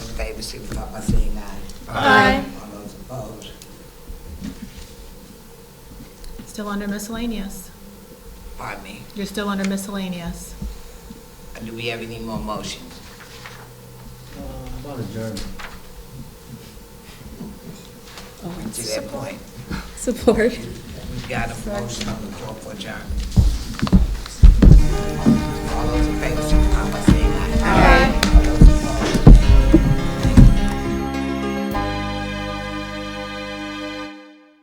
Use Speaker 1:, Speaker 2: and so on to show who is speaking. Speaker 1: favor, signify by saying aye.
Speaker 2: Aye.
Speaker 1: All those opposed,
Speaker 2: Still under miscellaneous.
Speaker 1: pardon me.
Speaker 2: You're still under miscellaneous.
Speaker 1: Do we have any more motions?
Speaker 3: Uh, About adjournment.
Speaker 1: To that point,
Speaker 4: Support.
Speaker 1: we got a motion on the floor for adjournment. All those